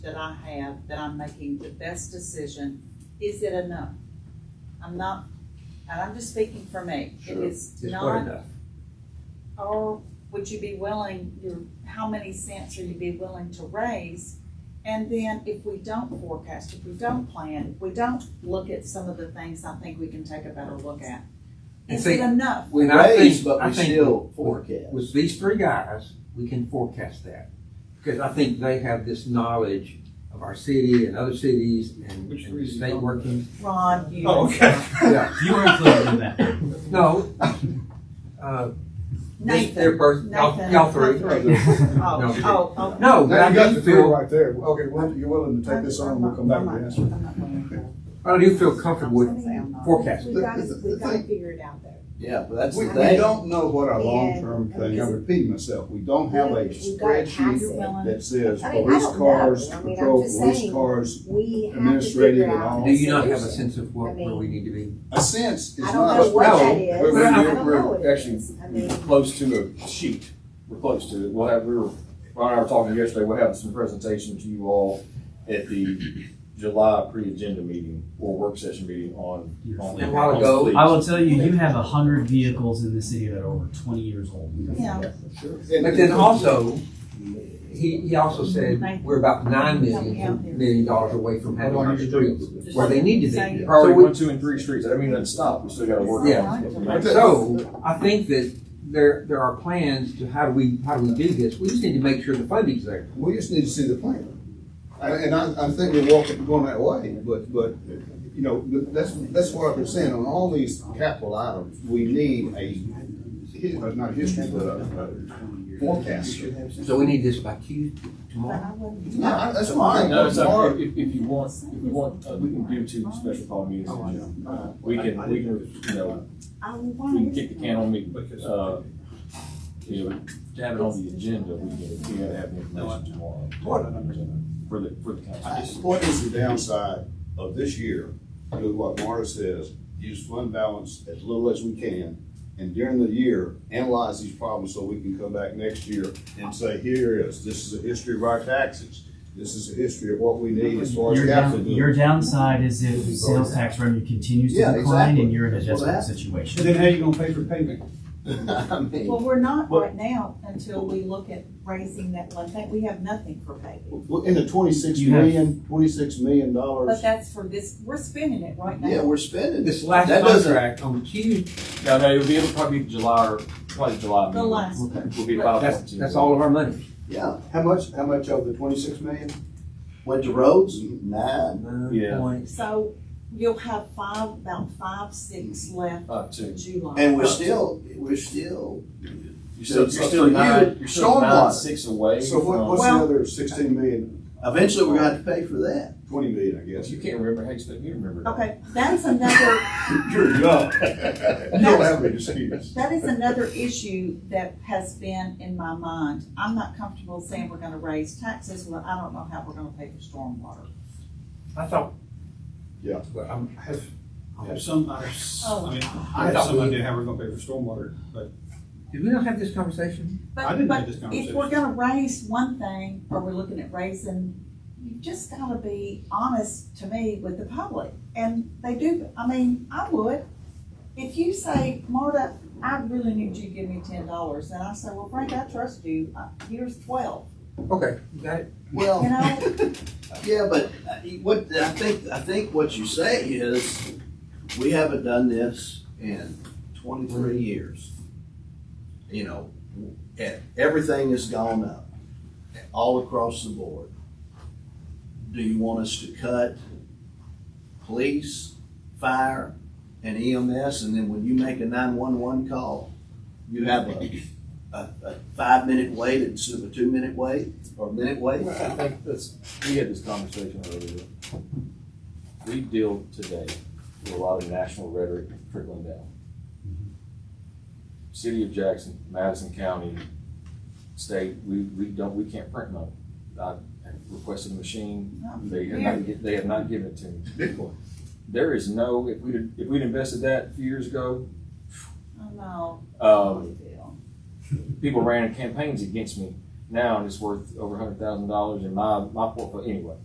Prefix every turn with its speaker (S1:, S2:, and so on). S1: that I have, that I'm making the best decision, is it enough? I'm not, and I'm just speaking for me. If
S2: Sure.
S1: it's
S2: It's not
S1: not,
S2: enough.
S1: or would you be willing, your, how many cents are you be willing to raise? And then if we don't forecast, if we don't plan, if we don't look at some of the things I think we can take a better look at,
S2: And
S1: is
S2: see,
S1: it enough?
S2: When I
S3: raise,
S2: think,
S3: but
S2: I
S3: we
S2: think
S3: still
S2: with-
S3: forecast.
S2: With these three guys, we can forecast that, because I think they have this knowledge of our city and other cities and
S4: Which
S2: and
S4: reason?
S2: state working.
S1: Ron, you.
S4: Oh, okay.
S2: Yeah,
S5: You were included in that.
S2: no. uh, this-
S1: Nathan.
S2: Their birth, y'all
S1: Nathan,
S2: y'all three.
S1: Nathan.
S2: No.
S1: Oh, oh, oh.
S2: No, but
S6: Now
S2: I
S6: you got the
S2: do
S6: three
S2: feel,
S6: right there. Okay, well, you're willing to take this on, we'll come back to the answer.
S1: I'm not going to.
S2: I do feel comfortable
S7: I'm
S2: with
S7: saying I'm
S1: not.
S2: forecasting.
S7: We gotta, we gotta figure it out though.
S3: Yeah, but that's
S6: We,
S3: the
S6: we
S3: thing.
S6: don't know what our
S7: Yeah.
S6: long-term thing, I'm repeating myself, we don't have a
S7: We- we gotta pass it.
S6: spreadsheet that says
S7: I mean, I
S6: police
S7: don't know.
S6: cars,
S7: I mean, I'm
S6: patrol,
S7: just
S6: police
S7: saying.
S6: cars.
S7: We have to
S6: Administrative
S7: figure
S6: and
S7: out.
S6: all.
S2: Do you not have a
S7: solution.
S2: sense of what, where we need to be?
S6: A sense is
S7: I don't
S6: not.
S7: know what
S2: No,
S7: that is.
S3: we're-
S2: we're-
S7: I don't
S3: we're
S7: know what it
S3: actually-
S7: is. I mean,
S3: Close to a sheet, we're close to it, we'll have, we were, Ron and I were talking yesterday, we'll have some presentation to you all at the July pre-agenda meeting or work session meeting on. on-
S2: A while
S3: on
S2: ago,
S3: fleet.
S5: I will tell you, you have a hundred vehicles in the city that are over twenty years old.
S1: Yeah.
S6: And-
S2: But then also, he, he also said, we're about nine million, million dollars away from having our streets where they need to
S3: Priority
S2: be. So
S3: one,
S2: we-
S3: two, and three streets, I don't mean, doesn't stop, we still gotta work. on it.
S6: Right.
S2: So, I think that there, there are plans to how do we, how do we do this? We just need to make sure the funding's there.
S6: We just need to see the plan. And and I, I think we're walking, going that way, but, but, you know, but that's, that's what I've been saying, on all these capital items, we need a, hi- uh, not history, but a, a forecast.
S2: So we need this by Tuesday,
S1: But
S2: tomorrow.
S1: I wouldn't.
S6: No, I- that's fine,
S3: No,
S6: but
S3: it's up,
S6: tomorrow,
S3: if, if if you want, if you want, uh, we can do two special call meetings, in June. Uh, we can, we can, you know,
S1: I would
S3: we
S1: want
S3: can
S1: to
S3: kick the can on me, uh, you know, to have it on the agenda, we can, we gotta have the information tomorrow. For the, for the
S6: I-
S3: council.
S6: what is the downside of this year, doing what Marta says, use fund balance as little as we can, and during the year, analyze these problems so we can come back next year and say, here is, this is a history of our taxes, this is a history of what we need as far as
S5: Your,
S6: capital.
S5: down- your downside is if sales tax revenue continues to
S6: Yeah,
S5: decline
S6: exactly.
S5: and you're in a
S6: That's what
S5: desperate
S6: happened.
S5: situation.
S4: Then how you gonna pay for paving?
S6: I mean,
S1: Well, we're not
S3: Well-
S1: right now until we look at raising that one thing. We have nothing for paving.
S6: w- in the twenty-six
S5: You have-
S6: million, twenty-six million
S1: But
S6: dollars,
S1: that's for this, we're spending it right
S6: yeah,
S1: now.
S6: we're spending.
S2: This last
S6: That doesn't-
S2: contract on Tuesday,
S3: No, no, it'll be, it'll probably be July or, probably July.
S1: The last
S3: meeting.
S1: one.
S3: Will be about.
S2: that's, that's all of our money.
S6: Yeah, how much, how much of the twenty-six million went to roads? Nine.
S3: Yeah.
S1: So you'll have five, about five, six left
S3: Uh,
S1: in
S3: two.
S1: July.
S6: And we're still, we're still.
S3: You're still,
S6: So
S3: you're still
S6: for you,
S3: nine, you're still
S6: stormwater.
S3: nine, six away
S6: So what,
S3: from,
S6: what's the
S1: Well-
S6: other sixteen million?
S3: Eventually, we're gonna
S6: have to pay for that. Twenty million, I guess.
S3: you can't remember, how you expect me to remember? that?
S1: Okay, that's another,
S6: You're young. You don't have an excuse.
S1: that is another issue that has been in my mind. I'm not comfortable saying we're gonna raise taxes when I don't know how we're gonna pay for stormwater.
S2: I thought.
S6: Yeah.
S2: Well, I'm-
S4: Have, have some, I
S1: Oh.
S4: mean, I have some idea how we're gonna pay for stormwater, but
S2: Did we not have this conversation?
S4: I
S1: But,
S4: didn't have
S1: but
S4: this
S1: if
S4: conversation.
S1: we're gonna raise one thing, or we're looking at raising, you've just gotta be honest to me with the public. And they do, I mean, I would, if you say, Marta, I really need you to give me ten dollars, and I say, well, Frank, I trust you, Uh, here's twelve,
S2: Okay, you got it?
S1: you
S3: Well,
S1: know?
S3: yeah, but uh, what, I think, I think what you say is, we haven't done this in twenty-three years. You know, and everything has gone up, all across the board. Do you want us to cut police, fire, and EMS, and then when you make a nine-one-one call, you have a, a, a five-minute wait instead of a two-minute wait, or minute wait?
S8: I think that's, we had this conversation earlier. We deal today with a lot of national rhetoric trickling down. City of Jackson, Madison County, state, we, we don't, we can't print money. I requested a machine, they have not, gi- they have not given it to me.
S6: Bitcoin.
S8: There is no, if we'd, if we'd invested that a few years ago,
S1: I know. 嗯
S8: um, people ran campaigns against me
S3: now and it's worth over a hundred thousand dollars in my, my portfolio, anyway.